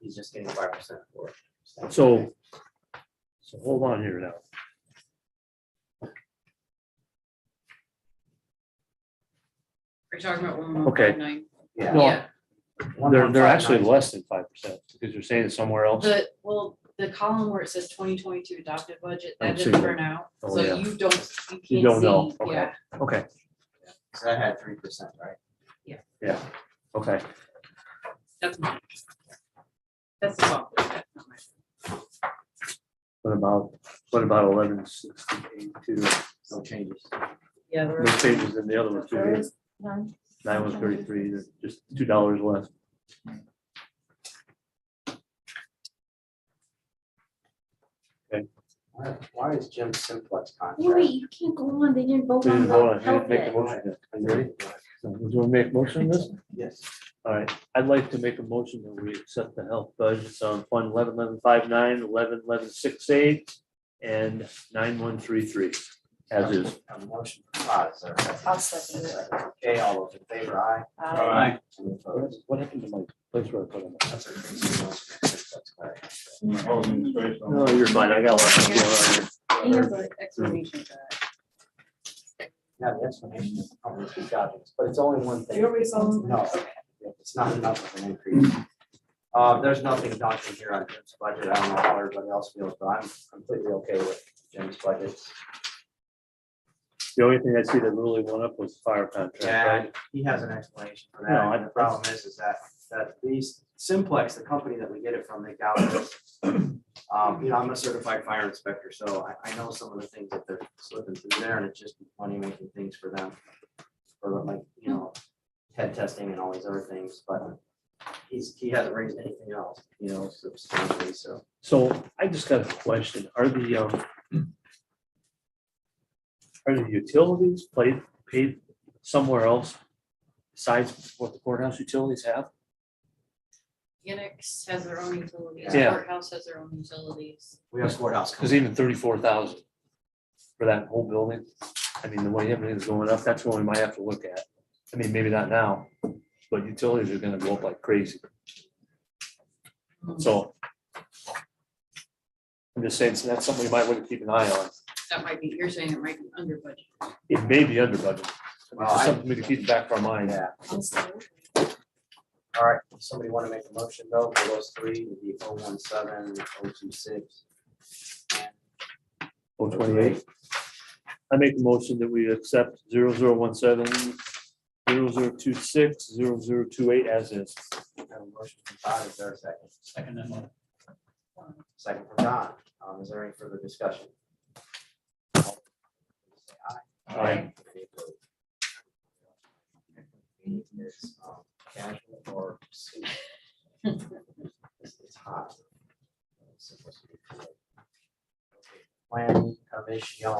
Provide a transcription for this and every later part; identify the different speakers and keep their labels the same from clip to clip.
Speaker 1: he's just getting five percent for it.
Speaker 2: So, so hold on here now.
Speaker 3: Are you talking about one one
Speaker 2: Okay.
Speaker 3: five nine?
Speaker 1: Yeah.
Speaker 2: No,
Speaker 3: Yeah,
Speaker 2: They're, they're
Speaker 1: 1.59.
Speaker 2: actually less than five percent because you're saying it's somewhere else.
Speaker 3: the, well, the column where it says twenty twenty-two adopted budget,
Speaker 2: I
Speaker 3: that
Speaker 2: see
Speaker 3: didn't
Speaker 2: that.
Speaker 3: turn out,
Speaker 2: Oh,
Speaker 3: so
Speaker 2: yeah.
Speaker 3: you don't,
Speaker 2: You
Speaker 3: you
Speaker 2: don't
Speaker 3: can't
Speaker 2: know.
Speaker 3: see,
Speaker 2: Okay.
Speaker 3: yeah.
Speaker 2: Okay,
Speaker 1: So I had three percent, right?
Speaker 2: okay.
Speaker 3: That's mine. That's the software, that's not mine.
Speaker 2: What about, what about eleven sixty-eight two?
Speaker 1: No changes.
Speaker 3: Yeah, the
Speaker 2: No
Speaker 3: rest-
Speaker 2: changes in the other one too. Nine one thirty-three, there's just two dollars less.
Speaker 1: Why- Why is Jim Simplex
Speaker 4: Wait,
Speaker 1: contract?
Speaker 4: you can't go on, they didn't vote
Speaker 2: We
Speaker 4: on
Speaker 2: didn't vote on
Speaker 4: the
Speaker 2: it. We didn't
Speaker 4: health
Speaker 2: Make the
Speaker 4: yet.
Speaker 2: motion. yet. Are you ready? So, Would you make a motion on this?
Speaker 1: Yes.
Speaker 2: All right, I'd like to make a motion that we accept the health budgets on fund eleven eleven five nine, eleven eleven six eight, and nine one three three, as is.
Speaker 1: A motion for Todd, sir.
Speaker 5: I'll second it.
Speaker 1: Okay, all those in favor, aye.
Speaker 3: Uh,
Speaker 5: Aye.
Speaker 1: Any opposed?
Speaker 2: What happened to my place where I put them?
Speaker 1: That's a crazy one. That's all right.
Speaker 2: No, you're fine, I got a lot going on here.
Speaker 3: and there's an explanation for that.
Speaker 1: Now, the explanation is probably two jobs, but it's only one thing.
Speaker 5: You already saw them?
Speaker 1: No, it's not enough of an increase. Uh, there's nothing daunting here on Jim's budget. I don't know how everybody else feels, but I'm completely okay with Jim's budget.
Speaker 2: The only thing I see that really went up was the fire contract, right?
Speaker 1: And he has an explanation for
Speaker 2: No,
Speaker 1: that.
Speaker 2: I-
Speaker 1: And the problem is, is that, that these Simplex, the company that we get it from, they got this. Um, you know, I'm a certified fire inspector, so I, I know some of the things that they're slipping through there and it's just money making things for them. For like, you know, head testing and all these other things, but he's, he hasn't raised anything else, you know, substantially, so.
Speaker 2: So I just got a question, are the, um, are the utilities played, paid somewhere else besides what the courthouse utilities have?
Speaker 3: Annex has their own utilities,
Speaker 2: Yeah.
Speaker 3: courthouse has their own utilities.
Speaker 1: We have courthouse.
Speaker 2: Because even thirty-four thousand for that whole building, I mean, the way everything's going up, that's what we might have to look at. I mean, maybe not now, but utilities are gonna go up like crazy, so. I'm just saying, so that's something we might want to keep an eye on.
Speaker 3: That might be, you're saying it might be under budget.
Speaker 2: It may be under budget.
Speaker 1: Well,
Speaker 2: It's
Speaker 1: I-
Speaker 2: something to keep in the back of our mind.
Speaker 1: Yeah,
Speaker 5: I'll second.
Speaker 1: all right, somebody want to make a motion though for those three, it'd be oh one seven, oh two six.
Speaker 2: Oh, twenty-eight. I make the motion that we accept zero zero one seven, zero zero two six, zero zero two eight as is.
Speaker 1: Have a motion from Todd, is there a second?
Speaker 6: Second that motion.
Speaker 1: Second from Don, um, is there any further discussion? All in favor, say aye.
Speaker 2: Aye.
Speaker 1: Any opposed? Meeting is, um, Casual or. suit. It's it's hot. It's supposed to be cool. Okay, Plan commission.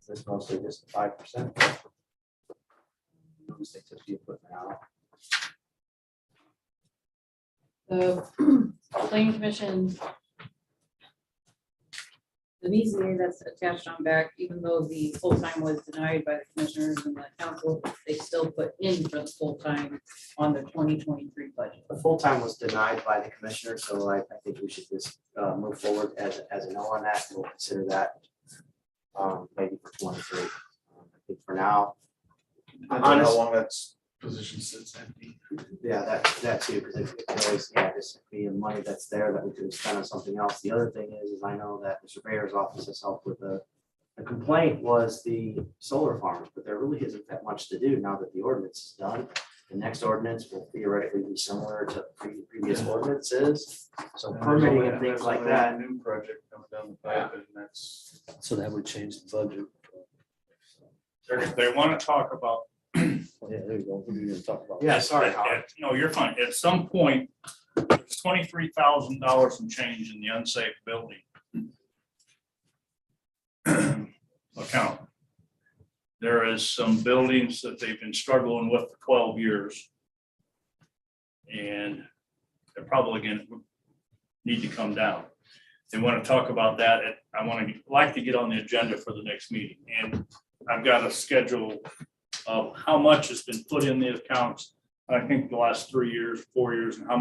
Speaker 1: Is This mostly just five percent. They took the equipment out.
Speaker 3: The planning commission. The BZA that's attached on back, even though the full-time was denied by the commissioners and the council, they still put in for the full-time on the twenty twenty-three budget.
Speaker 1: The full time was denied by the commissioner, so I, I think we should just, uh, move forward as, as a no on that, we'll consider that. Um, maybe for twenty-three, Um, I think for now,
Speaker 6: I don't know
Speaker 1: Honest-
Speaker 6: how long that position sits empty.
Speaker 1: yeah, that, that too, because it could always, yeah, this could be the money that's there that we could have spent on something else. The other thing is, is I know that the surveyor's office has helped with the, the complaint was the solar farms, but there really isn't that much to do now that the ordinance is done. The next ordinance will theoretically be similar to pre- previous ordinances, so
Speaker 2: Uh,
Speaker 6: And there's
Speaker 1: permitting
Speaker 6: only-
Speaker 1: and things
Speaker 6: there's
Speaker 1: like
Speaker 6: only
Speaker 1: that.
Speaker 6: one New project coming down the pipe and that's,
Speaker 2: So that would change the budget.
Speaker 7: They're, they want to talk about.
Speaker 2: Oh, Yeah, there you go. What are you gonna talk about?
Speaker 1: Yeah, sorry, Howard.
Speaker 7: At- No, you're fine. At some point, there's twenty-three thousand dollars in change in the unsafe building. Account. There is some buildings that they've been struggling with for twelve years. And they're probably gonna need to come down. They want to talk about that. at- I want to, like to get on the agenda for the next meeting. And I've got a schedule of how much has been put in the accounts I think the last three years, four years, and how